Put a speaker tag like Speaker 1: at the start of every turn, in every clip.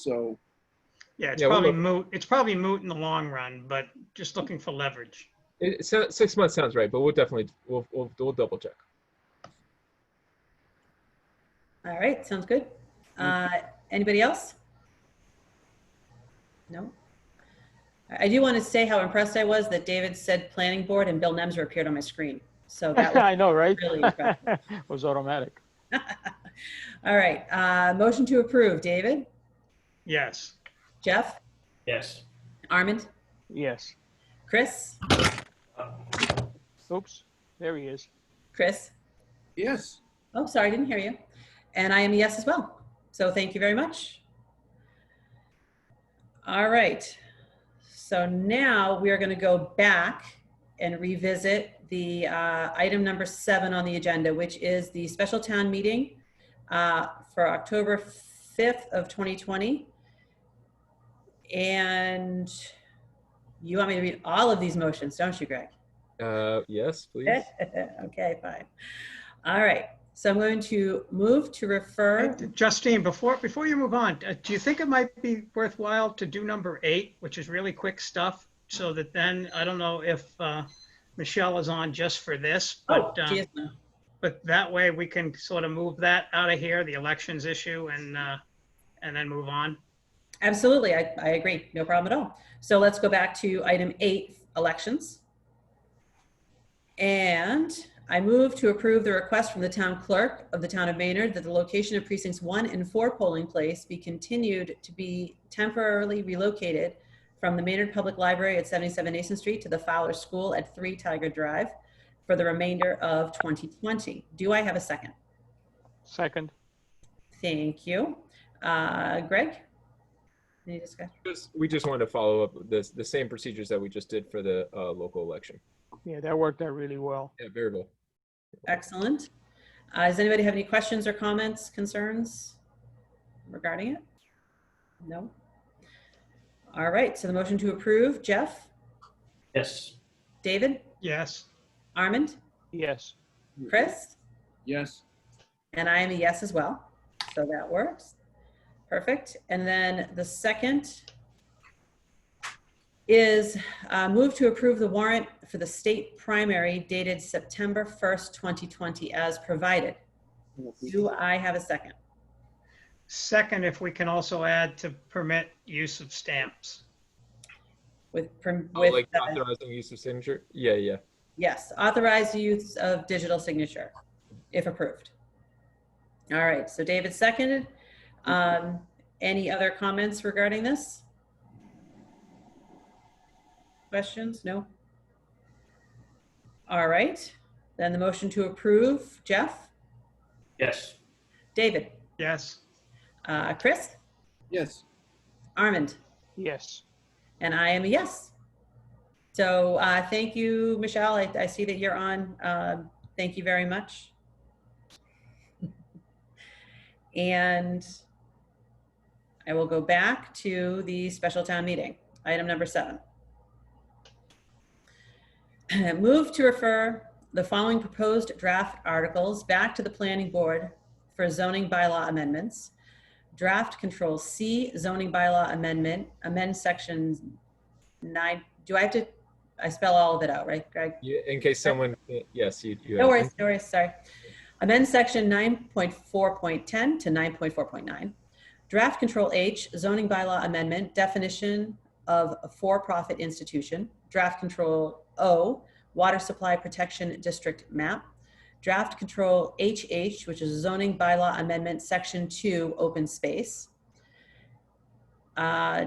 Speaker 1: so,
Speaker 2: Yeah, it's
Speaker 3: Yeah, we'll
Speaker 2: probably
Speaker 3: look.
Speaker 2: moot. It's probably moot in the long run, but just looking for leverage.
Speaker 3: It, it sounds, six months sounds right, but we'll definitely we'll we'll, we'll double check.
Speaker 4: All right, sounds good. Uh, Anybody else? No? I I do want to say how impressed I was that David said planning board and Bill Nemser appeared on my screen. So that was
Speaker 5: I know, right?
Speaker 4: really impressive.
Speaker 5: Was automatic.
Speaker 4: All right, uh, motion to approve. David?
Speaker 2: Yes.
Speaker 4: Jeff?
Speaker 6: Yes.
Speaker 4: Armand?
Speaker 5: Yes.
Speaker 4: Chris?
Speaker 5: Oops, there he is.
Speaker 4: Chris?
Speaker 1: yes.
Speaker 4: Oh, sorry, I didn't hear you. And I am a yes as well. So thank you very much. All right. So now we are going to go back and revisit the uh, item number seven on the agenda, which is the special town meeting uh, for October 5th of 2020. And you want me to read all of these motions, don't you, Greg?
Speaker 3: Uh, yes, please.
Speaker 4: Okay, fine. All right, so I'm going to move to refer.
Speaker 2: Uh, Justine, before before you move on, uh, do you think it might be worthwhile to do number eight, which is really quick stuff, so that then I don't know if uh, Michelle is on just for this,
Speaker 4: Oh,
Speaker 2: but uh,
Speaker 4: geez, no.
Speaker 2: but that way we can sort of move that out of here, the elections issue, and uh, and then move on.
Speaker 4: Absolutely, I, I agree, no problem at all. So let's go back to item eight, elections. And I move to approve the request from the town clerk of the town of Maynard that the location of precincts one and four polling place be continued to be temporarily relocated from the Maynard Public Library at 77 Nason Street to the Fowler School at 3 Tiger Drive for the remainder of 2020. Do I have a second?
Speaker 5: Second,
Speaker 4: Thank you. Uh, Greg? Any discussion?
Speaker 3: Just- we just wanted to follow up with this the same procedures that we just did for the uh, local election.
Speaker 5: yeah, that worked out really well.
Speaker 3: Yeah, very well.
Speaker 4: Excellent. Uh, Does anybody have any questions or comments, concerns regarding it? No? All right, so the motion to approve, Jeff,
Speaker 6: Yes.
Speaker 4: David,
Speaker 2: Yes.
Speaker 4: Armand,
Speaker 5: Yes,
Speaker 4: Chris?
Speaker 1: Yes,
Speaker 4: And I am a yes as well. So that works. Perfect. And then the second is uh, move to approve the warrant for the state primary dated September 1st, 2020 as provided. Do I have a second?
Speaker 2: Second, if we can also add to permit use of stamps.
Speaker 4: With, perm-
Speaker 3: Oh,
Speaker 4: with,
Speaker 3: like
Speaker 4: uh,
Speaker 3: authorizing use of signature. Yeah, yeah.
Speaker 4: yes, authorized use of digital signature if approved. All right, so David seconded. Um, Any other comments regarding this? Questions? No? All right, then the motion to approve, Jeff,
Speaker 6: Yes.
Speaker 4: David,
Speaker 2: Yes.
Speaker 4: uh, Chris,
Speaker 1: yes.
Speaker 4: Armand,
Speaker 5: yes.
Speaker 4: and I am a yes. So uh, thank you, Michelle. I, I see that you're on. Um, Thank you very much. And I will go back to the special town meeting, item number seven. Move to refer the following proposed draft articles back to the planning board for zoning bylaw amendments. Draft Control C zoning bylaw amendment, amend sections nine, do I have to, I spell all of it out, right, Greg?
Speaker 3: yeah. In case someone, uh, yes, you. you
Speaker 4: No
Speaker 3: have-
Speaker 4: worries, no worries, sorry. Amend section nine point four point ten to nine point four point nine. Draft Control H zoning bylaw amendment definition of a for-profit institution. Draft Control O water supply protection district map. Draft Control HH, which is zoning bylaw amendment, section two, open space. Uh,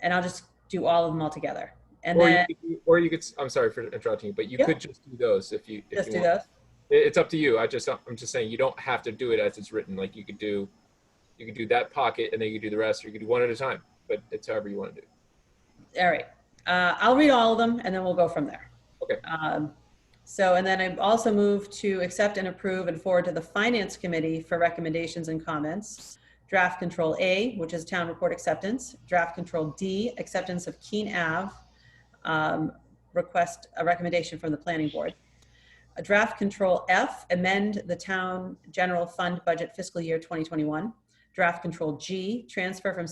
Speaker 4: And I'll just do all of them all together. And
Speaker 3: or,
Speaker 4: then,
Speaker 3: you could, do- or you could. s- I'm sorry for interrupting you, but you
Speaker 4: Yeah.
Speaker 3: could just do those if you. If
Speaker 4: just
Speaker 3: you
Speaker 4: do
Speaker 3: want.
Speaker 4: those.
Speaker 3: It- It's up to you. I just. I'm just saying you don't have to do it as it's written. Like you could do, you could do that pocket and then you could do the rest, or you could do one at a time. But it's however you want to do.
Speaker 4: All right. Uh, I'll read all of them and then we'll go from there.
Speaker 3: Okay.
Speaker 4: Um, so, and then I also move to accept and approve and forward to the Finance Committee for recommendations and comments. Draft Control A, which is Town Report Acceptance. Draft Control D, Acceptance of Keene Ave. Um, request a recommendation from the Planning Board. A draft Control F, amend the Town General Fund Budget fiscal year 2021. Draft Control G, transfer from